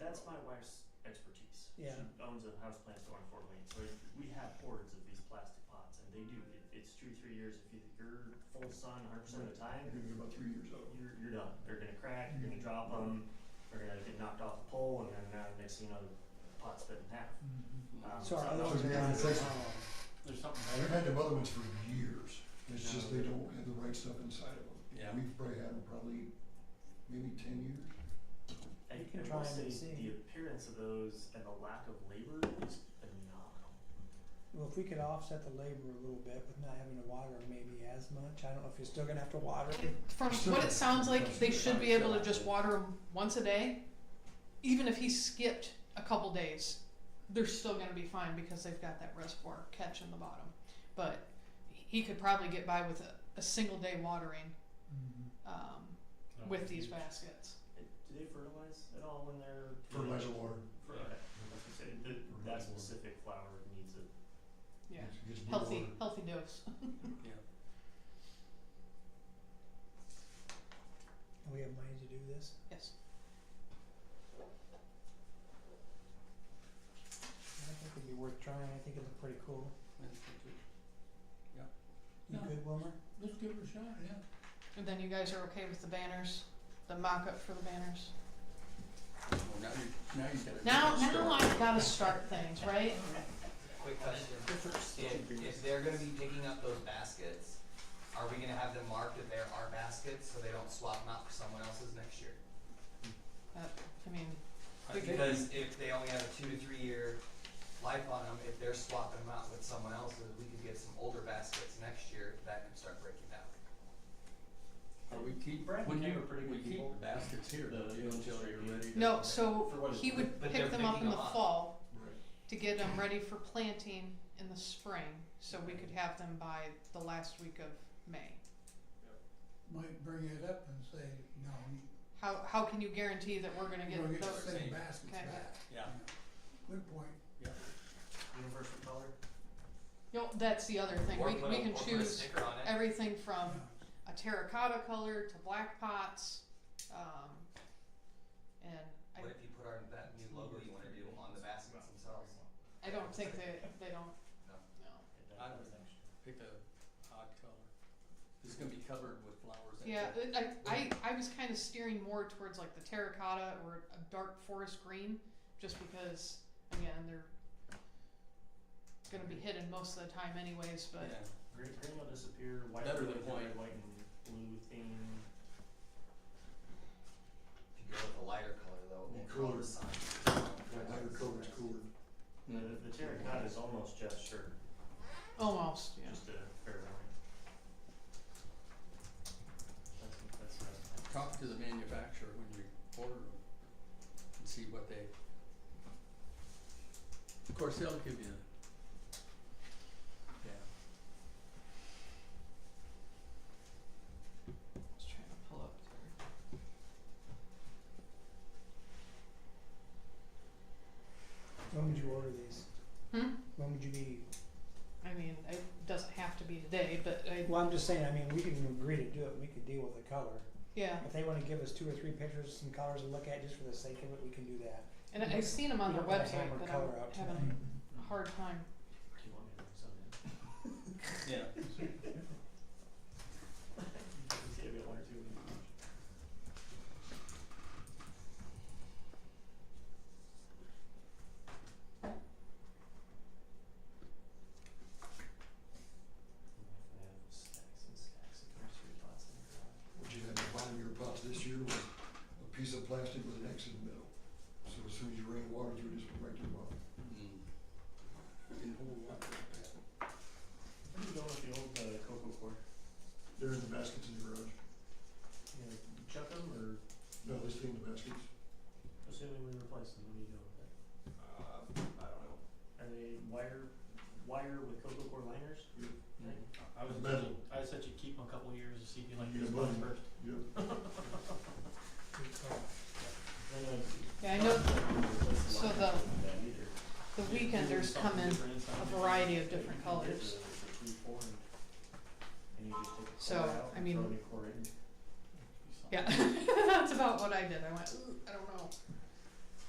that's my wife's expertise. Yeah. She owns a house plant store in Fort Wayne, so we have hordes of these plastic pots, and they do, it, it's two, three years, if you, you're full sun hundred percent of the time, You're about three years old. you're, you're done. They're gonna crack, you're gonna drop them, they're gonna get knocked off the pole, and then, uh, next thing you know, the pot's split in half. Um, Mm-hmm. So so are those Yeah, guys, it's um, There's something And We've had them other ones for years, it's just they don't have the right stuff inside of them. Yeah. We've probably had them probably maybe ten years. I, You I can will try 'em say and see. the appearance of those and the lack of labor is phenomenal. well, if we could offset the labor a little bit with not having to water maybe as much, I don't know if you're still gonna have to water. From what it sounds like, they should be able to just water him once a day, even if he skipped a couple days. They're still going to be fine because they've got that reservoir catch in the bottom. But he could probably get by with a, a single day watering um, Oh, with these baskets. Uh, Do they fertilize at all when they're? Fertilizer water. Fer- okay. That's what I uh, said. The- that specific flower needs a, Yeah, It gets blue healthy, water. healthy dose. And we have money to do this. Yes. I think it'd be worth trying, I think it'd look pretty cool. You Yeah. good, Wilmer? Let's give it a shot, yeah. And then you guys are okay with the banners, the mock up for the banners. Well, now you, now you gotta. Now, get it now started. I've got to start things, right? Quick question, if, if they're gonna be picking up those baskets, are we gonna have them marked that they're our baskets, so they don't swap them out for someone else's next year? That, Uh, I mean, I think- Because if they only have a two to three year life on them, if they're swapping them out with someone else's, we could get some older baskets next year that can start breaking down. But we keep, Brad when and you, Ken are pretty we good keep people. the baskets here The- until you're ready to. no, so For what it's he worth. would But they're pick them up picking in the them up. fall. Right. to get them ready for planting in the spring, so we could have them by the last week of May. might bring it up and say, no, How, how can you guarantee that we're gonna you get don't get those? the same. same baskets Okay. back. Yeah. Good point. universal color. No, that's the other thing, Or we, put we a- can or put a choose sticker on it. everything from Yeah. a terracotta color to black pots, um, and What if you put our, that new logo you wanna do on the baskets themselves? I, I don't think they, they don't, No. no. I don't think Pick a odd color. It's gonna be covered with flowers. that's Yeah, it. it- I, I, I was kind of steering more towards like the terracotta or a dark forest green, just because, again, they're gonna be hidden most of the time anyways, but Yeah. Green, green will disappear, white Better will than be red, white. white and blue theme. If you go with a lighter color though, Be it will cooler. the sign. That lighter color is cooler. Mm-hmm. The, the terracotta is almost just sure, almost, yeah. just a fair warning. That's, that's what I was thinking. Talk to the manufacturer when you order them and see what they. Of course, they'll give you. Yeah. I was trying to pull up there. When would you order these? Hmm? When would you be, I mean, it doesn't have to be today, but I, well, I'm just saying, I mean, we can agree to do it, we could deal with the color. yeah, If they wanna give us two or three pictures, some colors to look at just for the sake of it, we can do that. and I- I've seen them on We their don't wanna website, hammer but I'm color out having tonight. a hard time. Do you want me to bring some in? Yeah. Yeah, we got one or two. Stacks and stacks of nursery pots in the garage. What you had to buy in your pots this year was a piece of plastic with an X in the middle. So as soon as you rain water through it, it's right to the bottom. Mm. Can hold a lot like that. Where are you going with the old uh, cocoa core? They're in the baskets in the garage. You know, chuck 'em or No, they stay in the baskets. assuming we replace them, what do you go with that? Uh, I don't know. Are they wire, wire with cocoa core liners? Mm. I was, Metal. I said you keep them a couple of years to see if you like Yeah, this one mine. first. Yep. Good call. Then, uh, Yeah, I know replace the so liners the- with that either. the weekenders come in a variety of different colors. So, I mean- Yeah, that's about what I did. I went, ooh, I don't know.